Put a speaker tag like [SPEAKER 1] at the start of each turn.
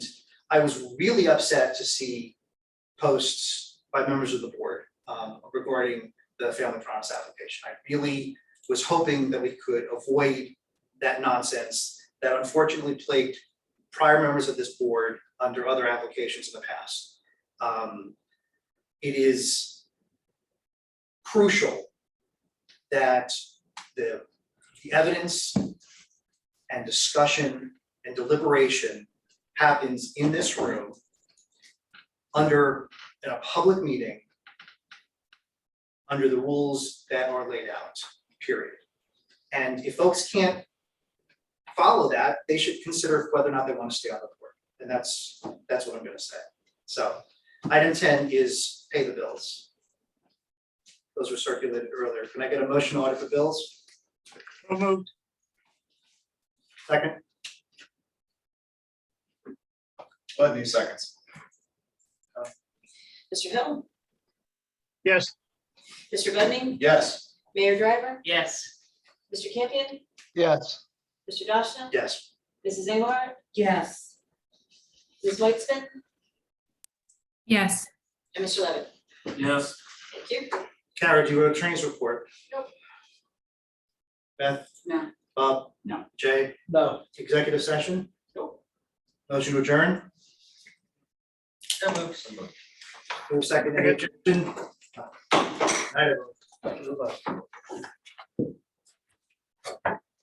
[SPEAKER 1] I was really upset to see posts by members of the board um, regarding the family promise application. I really was hoping that we could avoid that nonsense that unfortunately plagued prior members of this board under other applications in the past. Um, It is crucial that the, the evidence and discussion and deliberation happens in this room under, in a public meeting, under the rules that are laid out, period. And if folks can't follow that, they should consider whether or not they want to stay on the board. And that's, that's what I'm gonna say. So item ten is pay the bills. Those were circulated earlier. Can I get a motion to audit the bills?
[SPEAKER 2] So moved.
[SPEAKER 1] Second,
[SPEAKER 3] Plenty seconds.
[SPEAKER 4] Mr. Hill,
[SPEAKER 2] Yes,
[SPEAKER 4] Mr. Budning,
[SPEAKER 3] Yes.
[SPEAKER 4] Mayor Driver,
[SPEAKER 5] Yes,
[SPEAKER 4] Mr. Campion,
[SPEAKER 6] yes,
[SPEAKER 4] Mr. Dashna,
[SPEAKER 1] yes,
[SPEAKER 4] Mrs. Engelhardt,
[SPEAKER 7] yes,
[SPEAKER 4] Ms. Whitesman,
[SPEAKER 8] yes,
[SPEAKER 4] and Mr. Levitt.
[SPEAKER 5] yes,
[SPEAKER 4] Thank you.
[SPEAKER 1] Kara, do you have a trainings report?
[SPEAKER 4] Nope.
[SPEAKER 1] Beth?
[SPEAKER 7] No.
[SPEAKER 1] Bob?
[SPEAKER 7] No.
[SPEAKER 1] Jay? No. Executive session?
[SPEAKER 7] Nope.
[SPEAKER 1] Motion to adjourn?
[SPEAKER 5] so moved.
[SPEAKER 1] Move second, any objection? Night, everyone. Good luck.